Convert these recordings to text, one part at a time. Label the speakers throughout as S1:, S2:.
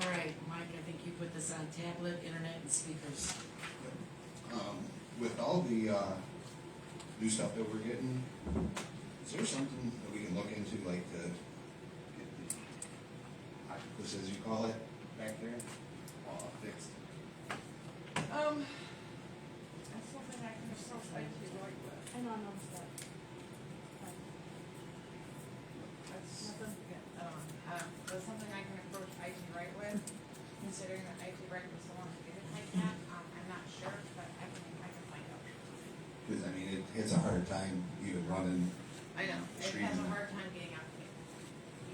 S1: Mike, I think you put this on tablet, internet, and speakers.
S2: Um, with all the, uh, new stuff that we're getting, is there something that we can look into, like the, get the octopus, as you call it, back there, all fixed?
S3: Um, that's something I can still fight to work with.
S4: I know, I know, but. but
S3: That's,
S4: Nothing?
S3: um, uh, that's something I can approach IT right with, considering that IT right was the one who did it like that. Um, I'm not sure, but I can, I can find out.
S2: Cause I mean, it, it's a hard time even running,
S3: I know, it
S2: Stream
S3: has a
S2: and-
S3: hard time getting out here,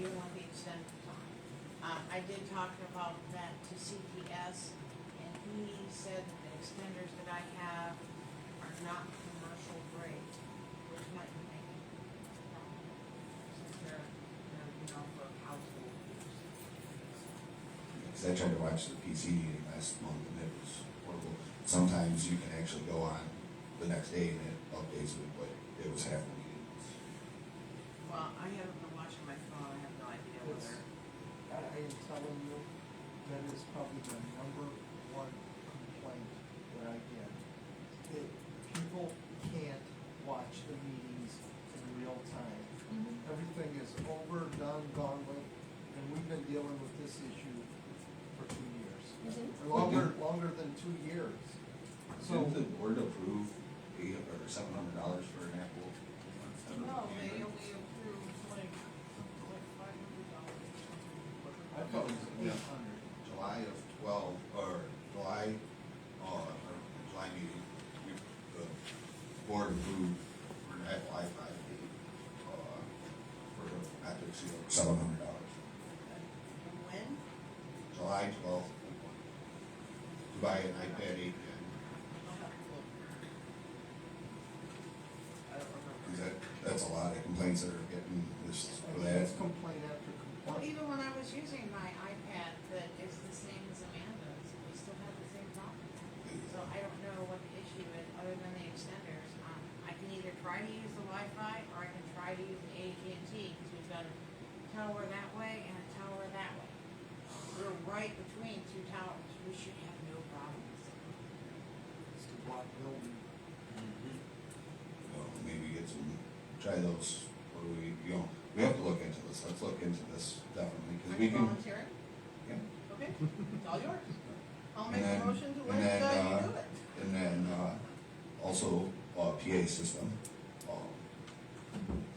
S3: even with the extended time. Um, I did talk about that to CPS, and he said that the extenders that I have are not commercial grade, which might be making. Since they're, they're, you know, for household use.
S2: cause I tried to watch the PC meeting last month and it was horrible. Sometimes you can actually go on the next day and it updates it, but it was half the meeting.
S3: Well, I haven't been watching my phone, I have no idea whether,
S5: I I am telling you, that is probably the number one complaint that I get. That people can't watch the meetings in real time. Everything is over, done, gone with, and we've been dealing with this issue for two years.
S4: Mhm.
S5: Or Longer, longer than two years. So,
S2: Didn't the board approve eight or seven hundred dollars for an Apple?
S3: no, they only approved like, something like five hundred dollars.
S5: I thought it was
S2: Yeah.
S5: eight hundred.
S2: July of twelve, or July, uh, or July meeting, we, the board approved for an Apple i5, uh, for, I think, seven hundred dollars.
S3: And when?
S2: July twelfth, to buy an iPad eight, and,
S3: I'll have to look. I don't
S2: cause
S3: remember.
S2: that, that's a lot of complaints that are getting this, or that.
S5: It's complaint after
S3: Well,
S5: complaint.
S3: even when I was using my iPad that is the same as Amanda's, we still have the same problem. So I don't know what the issue is, other than the extenders. Um, I can either try to use the Wi-Fi or I can try to use AT&T, because we've got a tower that way and a tower that way. We're right between two towers, we should have no problems.
S5: It's the block building.
S2: Well, maybe get some, try those, or we, you know, we have to look into this, let's look into this, definitely, cause we
S3: I'm
S2: can.
S3: volunteering,
S2: yeah.
S3: okay? It's all yours. I'll
S2: And
S3: make a
S2: then-
S3: motion to
S2: and
S3: let
S2: then,
S3: uh,
S2: uh,
S3: you do it.
S2: And then, uh, also, uh, PA system, um,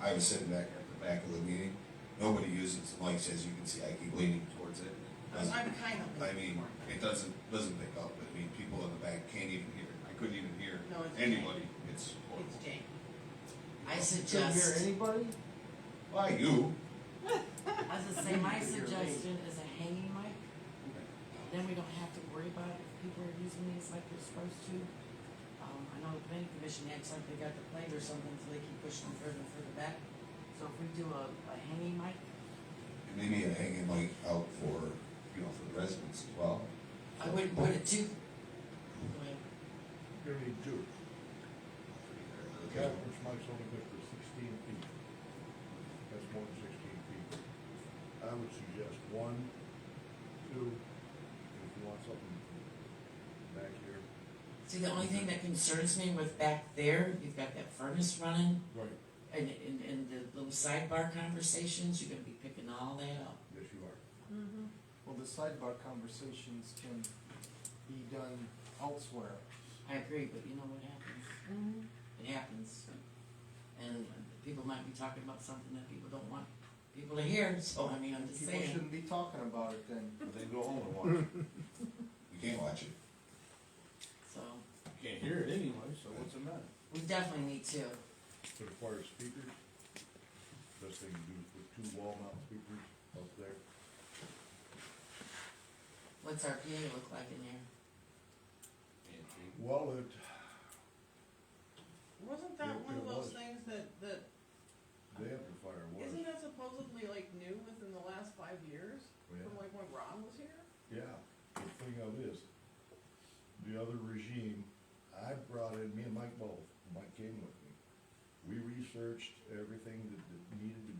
S2: I was sitting back at the back of the meeting, nobody uses the mics, as you can see, I keep leaning towards it.
S3: I'm
S2: Doesn't-
S3: kind of.
S2: I mean, it doesn't, doesn't pick up, I mean, people in the back can't even hear, I couldn't even hear
S3: No, it's
S2: anybody, it's horrible.
S3: It's Jane.
S1: I
S5: Couldn't hear
S1: suggest,
S5: anybody?
S2: Why you?
S1: I was gonna say, my suggestion is a hanging mic, then we don't have to worry about if people are using these like they're supposed to. Um, I know the planning commission acts like they got the plate or something, so they keep pushing them further and further back. So if we do a, a hanging mic,
S2: And maybe a hanging light out for, you know, for the residents as well.
S1: I wouldn't put it too.
S6: You need two. The
S2: Okay.
S6: conference mic's only good for sixteen feet. That's more than sixteen feet. I would suggest one, two, if you want something back here.
S1: See, the only thing that concerns me with back there, you've got that furnace running
S6: Right.
S1: and, and, and the little sidebar conversations, you're gonna be picking all that up.
S6: Yes, you are.
S5: Well, the sidebar conversations can be done elsewhere.
S1: I agree, but you know what happens? It happens. And people might be talking about something that people don't want people to hear, so I mean, I'm just
S5: People
S1: saying.
S5: shouldn't be talking about it then.
S7: They go home and watch. it.
S2: You can't watch it.
S1: So,
S7: You Can't hear it anyway, so what's the matter?
S1: we definitely need to.
S6: But as far as speakers, best thing to do is put two wall mount speakers up there.
S1: What's our PA look like in there?
S7: Mm-hmm.
S6: Well, it,
S3: Wasn't that
S6: Yeah,
S3: one of
S6: it
S3: those
S6: was.
S3: things that, that,
S6: amplifier was,
S3: isn't that supposedly like new within the last five years?
S6: yeah.
S3: From like when Ron was here?
S6: Yeah, the thing of this, the other regime, I brought in, me and Mike both, Mike came with me. We researched everything that, that needed to